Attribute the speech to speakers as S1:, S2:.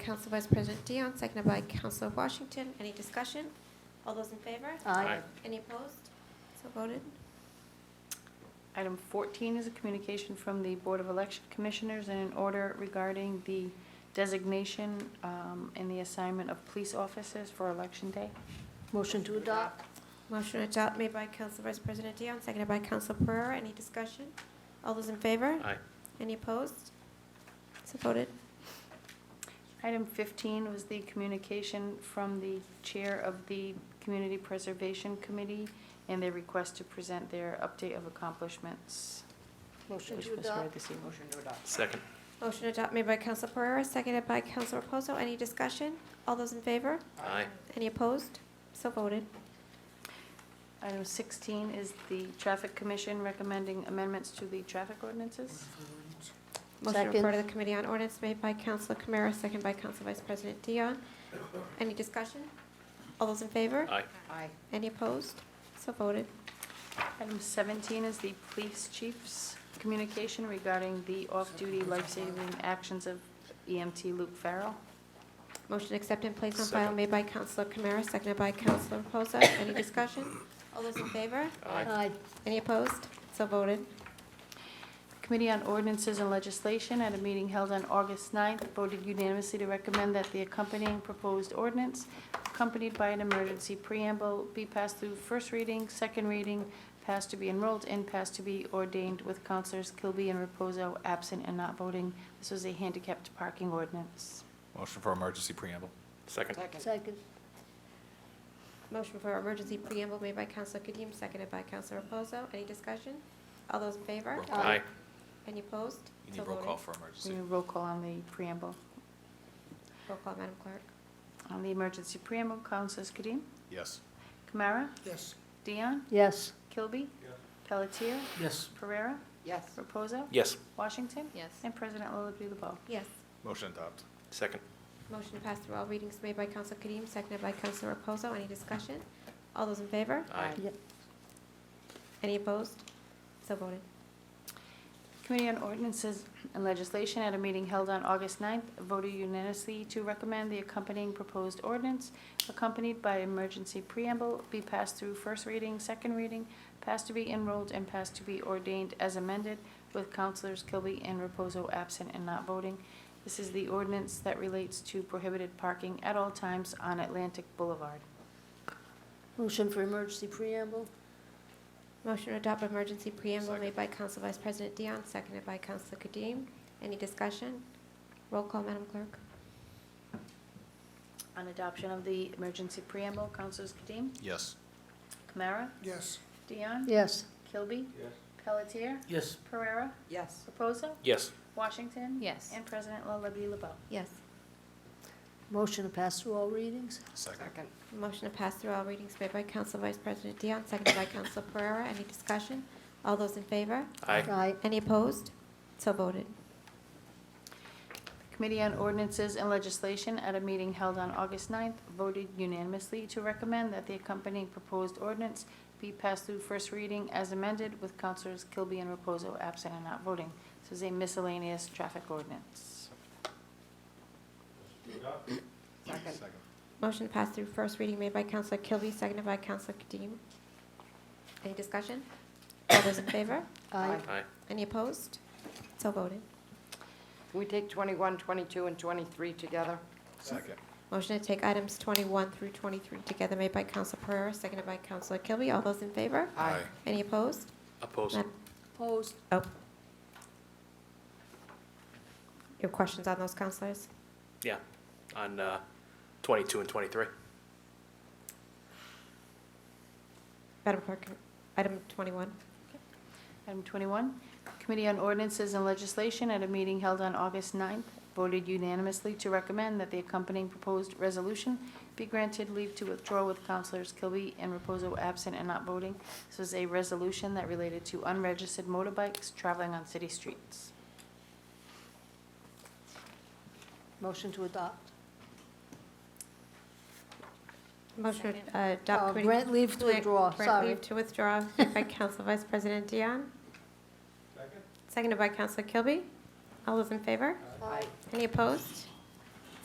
S1: Council Vice President Dion, seconded by Councilor Washington. Any discussion? All those in favor?
S2: Aye.
S1: Any opposed? So voted.
S2: Item 14 is a communication from the Board of Election Commissioners in an order regarding the designation um, and the assignment of police officers for Election Day.
S3: Motion to adopt?
S1: Motion to adopt made by Council Vice President Dion, seconded by Council Pereira. Any discussion? All those in favor?
S4: Aye.
S1: Any opposed? So voted.
S2: Item 15 was the communication from the Chair of the Community Preservation Committee and their request to present their update of accomplishments,
S3: Motion
S2: which
S3: to
S2: was read
S3: adopt?
S2: this evening. Motion to adopt.
S4: Second.
S1: Motion to adopt made by Council Pereira, seconded by Council Reposo. Any discussion? All those in favor?
S4: Aye.
S1: Any opposed? So voted.
S2: Item 16 is the Traffic Commission recommending amendments to the traffic ordinances.
S1: Motion to refer to
S3: Second.
S1: the Committee on Ordinance made by Council Camara, seconded by Council Vice President Dion. Any discussion? All those in favor?
S4: Aye.
S3: Aye.
S1: Any opposed? So voted.
S2: Item 17 is the police chief's communication regarding the off-duty life-saving actions of EMT Luke Farrell.
S1: Motion to accept and place on file
S4: Second.
S1: made by Council Camara, seconded by Council Reposo. Any discussion? All those in favor?
S4: Aye.
S1: Any opposed? So voted.
S2: Committee on Ordinances and Legislation, at a meeting held on August 9th, voted unanimously to recommend that the accompanying proposed ordinance, accompanied by an emergency preamble, be passed through first reading, second reading, passed to be enrolled, and passed to be ordained with Counselors Kilby and Reposo absent and not voting. This was a handicapped parking ordinance.
S5: Motion for emergency preamble.
S4: Second.
S3: Second?
S1: Motion for emergency preamble made by Council Kadim, seconded by Council Reposo. Any discussion? All those in favor?
S5: Roll call.
S4: Aye.
S1: Any opposed?
S5: You
S1: So
S5: need roll
S1: voted.
S5: call for
S2: We
S5: emergency.
S2: need a roll call on the preamble.
S1: Roll call, Madam Clerk.
S2: On the emergency preamble, Councilors Kadim,
S5: Yes.
S2: Kamara,
S6: Yes.
S2: Dion,
S3: Yes.
S2: Kilby, Pelletier,
S6: Yes.
S2: Pereira,
S3: Yes.
S2: Reposo,
S4: Yes.
S2: Washington,
S3: Yes.
S2: and President Lullaby LaBeau.
S1: Yes.
S5: Motion adopt.
S4: Second.
S1: Motion to pass through all readings made by Council Kadim, seconded by Council Reposo. Any discussion? All those in favor?
S4: Aye.
S1: Any opposed? So voted.
S2: Committee on Ordinances and Legislation at a meeting held on August 9th voted unanimously to recommend the accompanying proposed ordinance accompanied by emergency preamble be passed through first reading, second reading, passed to be enrolled, and passed to be ordained as amended with Counselors Kilby and Reposo absent and not voting. This is the ordinance that relates to prohibited parking at all times on Atlantic Boulevard.
S3: Motion for emergency preamble?
S1: Motion to adopt emergency preamble
S5: Second.
S1: made by Council Vice President Dion, seconded by Council Kadim. Any discussion? Roll call, Madam Clerk.
S2: On adoption of the emergency preamble, Counselors Kadim,
S5: Yes.
S2: Kamara,
S6: Yes.
S2: Dion,
S3: Yes.
S2: Kilby, Pelletier,
S6: Yes.
S2: Pereira,
S3: Yes.
S2: Reposo,
S4: Yes.
S2: Washington.
S3: Yes.
S2: And President Lullaby LaBeau.
S1: Yes.
S3: Motion to pass through all readings?
S5: Second.
S1: Motion to pass through all readings made by Council Vice President Dion, seconded by Council Pereira. Any discussion? All those in favor?
S4: Aye.
S3: Aye.
S1: Any opposed? So voted.
S2: Committee on Ordinances and Legislation, at a meeting held on August 9th, voted unanimously to recommend that the accompanying proposed ordinance be passed through first reading as amended with Counselors Kilby and Reposo absent and not voting. This is a miscellaneous traffic ordinance.
S3: Second.
S1: Motion to pass through first reading made by Council Kilby, seconded by Council Kadim. Any discussion? All those in favor?
S3: Aye.
S4: Aye.
S1: Any opposed? So voted.
S7: Can we take 21, 22, and 23 together?
S5: Second.
S1: Motion to take items 21 through 23 together made by Council Pereira, seconded by Council Kilby. All those in favor?
S7: Aye.
S1: Any opposed?
S4: Opposed.
S1: Madam-
S3: Opposed?
S1: Oh. Your questions on those, councilors?
S4: Yeah. On uh, 22 and 23.
S1: Madam Clerk, item 21.
S2: Item 21, Committee on Ordinances and Legislation, at a meeting held on August 9th, voted unanimously to recommend that the accompanying proposed resolution be granted leave to withdraw with Counselors Kilby and Reposo absent and not voting. This was a resolution that related to unregistered motorbikes traveling on city streets.
S3: Motion to adopt?
S1: Motion
S2: Second.
S1: to uh, adopt
S3: Uh,
S1: committee.
S3: grant leave to withdraw,
S1: Grant
S3: sorry.
S1: leave to withdraw by Council Vice President Dion. Seconded by Council Kilby. All those in favor?
S3: Aye.
S1: Any opposed?